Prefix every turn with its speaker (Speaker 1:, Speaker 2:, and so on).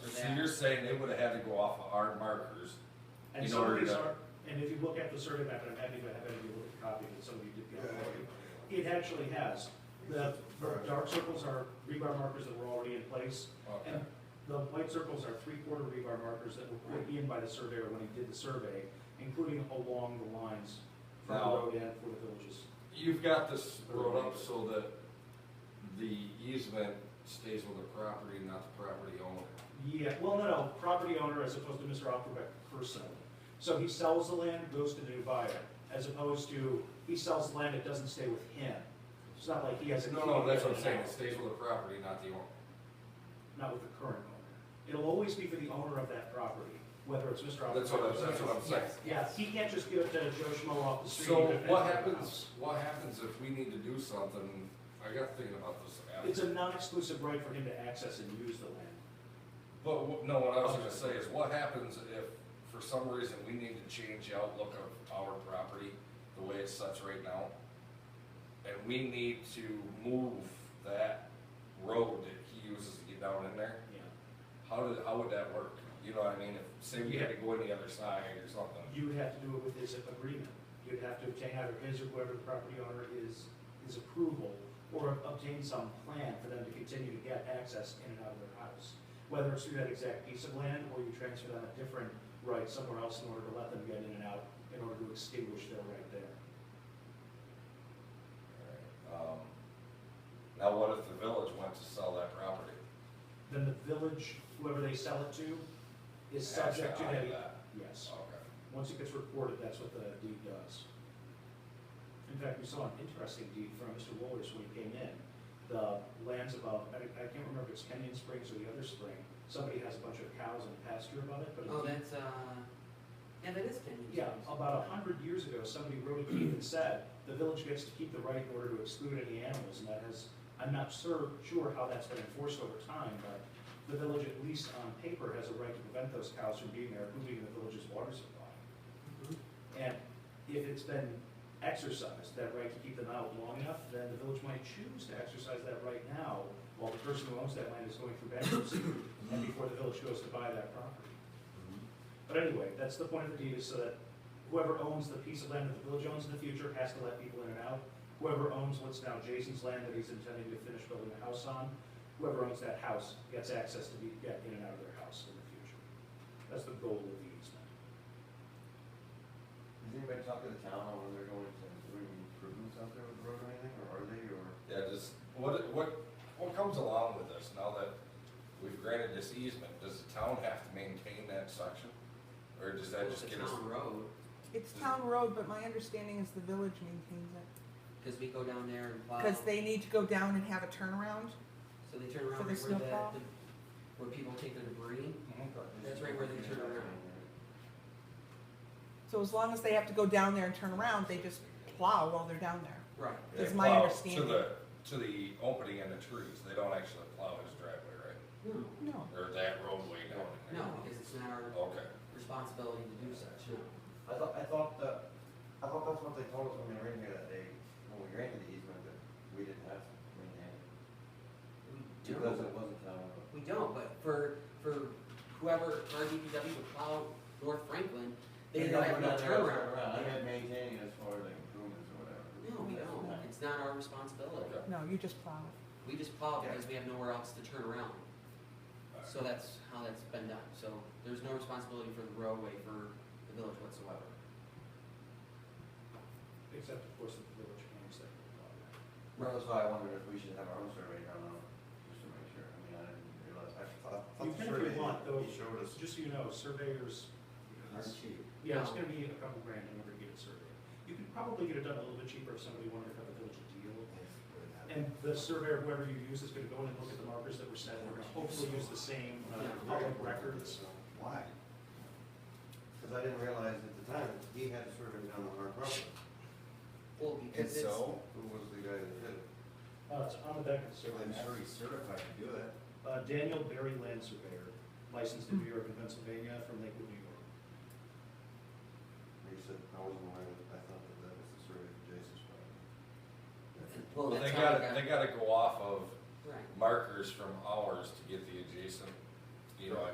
Speaker 1: So you're saying they would have had to go off of our markers?
Speaker 2: And
Speaker 1: in
Speaker 2: some of
Speaker 1: order
Speaker 2: these
Speaker 1: to-
Speaker 2: are, and if you look at the survey map, and I'm happy to have any of you look at a copy that somebody did the other day, it actually has, the the dark circles are rebar markers that were already in place,
Speaker 1: Okay.
Speaker 2: and the white circles are three-quarter rebar markers that were put in by the surveyor when he did the survey, including along the lines from the
Speaker 1: Now-
Speaker 2: road end for the villages.
Speaker 1: You've got this road up so that the easement stays with the property, not the property owner.
Speaker 2: Yeah, well, no, no, property owner as opposed to Mr. Opperbeck personally. So he sells the land, goes to the new buyer, as opposed to, he sells the land, it doesn't stay with him. It's not like he has a.
Speaker 1: No, no, that's what I'm saying, it stays with the property, not the owner.
Speaker 2: Not with the current owner. It'll always be for the owner of that property, whether it's Mr. Opperbeck.
Speaker 1: That's what I'm,
Speaker 2: or-
Speaker 1: that's what I'm saying.
Speaker 2: Yeah, he can't just give it to Joe Schmo off the street.
Speaker 1: So
Speaker 2: and defend
Speaker 1: what
Speaker 2: it.
Speaker 1: happens, what happens if we need to do something, I got thinking about this
Speaker 2: It's
Speaker 1: after.
Speaker 2: a non-exclusive right for him to access and use the land.
Speaker 1: But, wh- no, what I was gonna say is, what happens if, for some reason, we need to change the outlook of our property, the way it sets right now? And we need to move that road that he uses to get down in there?
Speaker 2: Yeah.
Speaker 1: How did, how would that work? You know what I mean? If, say we had to go in the other side or something.
Speaker 2: You would have to do it with his agreement. You'd have to obtain either his or whoever the property owner is, his approval, or obtain some plan for them to continue to get access in and out of their house. Whether it's through that exact piece of land, or you transfer them a different right somewhere else in order to let them get in and out, in order to extinguish their right there.
Speaker 1: Um, Now, what if the village went to sell that property?
Speaker 2: Then the village, whoever they sell it to, is
Speaker 1: Has
Speaker 2: subject to
Speaker 1: opt
Speaker 2: that.
Speaker 1: out.
Speaker 2: Yes.
Speaker 1: Okay.
Speaker 2: Once it gets reported, that's what the deed does. In fact, we saw an interesting deed from Mr. Woolers when he came in. The lands above, I, I can't remember if it's Kenyon Springs or the other spring, somebody has a bunch of cows and pasture above it, but. a
Speaker 3: Oh,
Speaker 2: deed-
Speaker 3: that's, uh, yeah, that is Kenyon
Speaker 2: Yeah,
Speaker 3: Springs.
Speaker 2: about a hundred years ago, somebody wrote a deed that said, the village gets to keep the right in order to exclude any animals, and that has, I'm not sur, sure how that's been enforced over time, but the village, at least on paper, has a right to prevent those cows from being there, including the village's water supply.
Speaker 3: Mhm.
Speaker 2: And if it's been exercised, that right to keep them out long enough, then the village might choose to exercise that right now while the person who owns that land is going through bankruptcy and before the village goes to buy that property. But anyway, that's the point of the deed is so that whoever owns the piece of land that the village owns in the future has to let people in and out. Whoever owns what's now Jason's land that he's intending to finish building a house on, whoever owns that house gets access to be, get in and out of their house in the future. That's the goal of the easement.
Speaker 4: Has anybody talked to the town on whether they're going to doing improvements out there with the road or anything, or are they, or?
Speaker 1: Yeah, just, what, what, what comes along with this now that we've granted this easement? Does the town have to maintain that section? Or does that
Speaker 3: It's
Speaker 1: just
Speaker 3: a
Speaker 1: get us?
Speaker 3: town road,
Speaker 5: It's town road, but my understanding is the village maintains it.
Speaker 3: because we go down there and plow.
Speaker 5: Because they need to go down and have a turnaround.
Speaker 3: So they turn
Speaker 5: for
Speaker 3: around right where
Speaker 5: the
Speaker 3: the,
Speaker 5: snowplow?
Speaker 3: the- where people take their debris. Mm-hmm. That's right where they turn around.
Speaker 5: So as long as they have to go down there and turn around, they just plow while they're down there.
Speaker 3: Right.
Speaker 1: They
Speaker 5: Is my
Speaker 1: plow
Speaker 5: understanding.
Speaker 1: To the, to the opening in the trees, they don't actually plow his driveway,
Speaker 3: No,
Speaker 5: No.
Speaker 1: right? Or that roadway down in there?
Speaker 3: no, because it's not our
Speaker 1: Okay.
Speaker 3: responsibility to do such, no.
Speaker 4: I thought, I thought that, I thought that's what they told us when we were in here that day, when we granted the easement, that we didn't have to maintain it.
Speaker 3: We
Speaker 4: Because
Speaker 3: don't,
Speaker 4: it wasn't town road.
Speaker 3: we don't, but for, for whoever, our DPW would plow North Franklin, they
Speaker 4: And
Speaker 3: don't
Speaker 4: I
Speaker 3: have
Speaker 4: went
Speaker 3: no
Speaker 4: out there and turned
Speaker 3: turnaround.
Speaker 4: around, I
Speaker 3: Yeah.
Speaker 4: meant maintaining as far as like improvements or whatever.
Speaker 3: No, we don't,
Speaker 4: That's
Speaker 3: it's not our responsibility.
Speaker 1: Okay.
Speaker 5: No, you just plow.
Speaker 3: We just plow
Speaker 4: Yeah.
Speaker 3: because we have nowhere else to turn around. So that's how that's been done, so there's no responsibility for the roadway for the village whatsoever.
Speaker 2: Except, of course, that the village owns that.
Speaker 4: Well, that's why I wondered if we should have our own survey done on, just to make sure, I mean, I didn't realize, I thought, I thought
Speaker 2: You
Speaker 4: the
Speaker 2: can if you
Speaker 4: survey,
Speaker 2: want, though.
Speaker 4: he showed us.
Speaker 2: Just so you know, surveyors,
Speaker 4: That's cheap.
Speaker 2: yeah, it's
Speaker 3: No.
Speaker 2: gonna be a couple grand in order to get it surveyed. You could probably get it done a little bit cheaper if somebody wanted to cut the village a deal. And the surveyor, whoever you use, is gonna go in and look at the markers that were set, and we're gonna hopefully use the same uh,
Speaker 3: Yeah.
Speaker 2: public records.
Speaker 4: Why? Because I didn't realize at the time, that he had a survey done on our property.
Speaker 3: Well,
Speaker 6: And
Speaker 3: because it's.
Speaker 6: so,
Speaker 4: Who was the guy that did it?
Speaker 2: Uh, it's on the back of the
Speaker 6: so
Speaker 2: survey.
Speaker 6: then every certified to do it,
Speaker 2: Uh, Daniel Berry Land Surveyor, licensed in New York and Pennsylvania from Lakewood, New York.
Speaker 4: He said, I wasn't aware, that I thought that that was the survey of Jason's property.
Speaker 3: Well,
Speaker 1: Well, they
Speaker 3: that's how we
Speaker 1: gotta, they gotta go off of
Speaker 3: Right.
Speaker 1: markers from ours to get the adjacent, you know,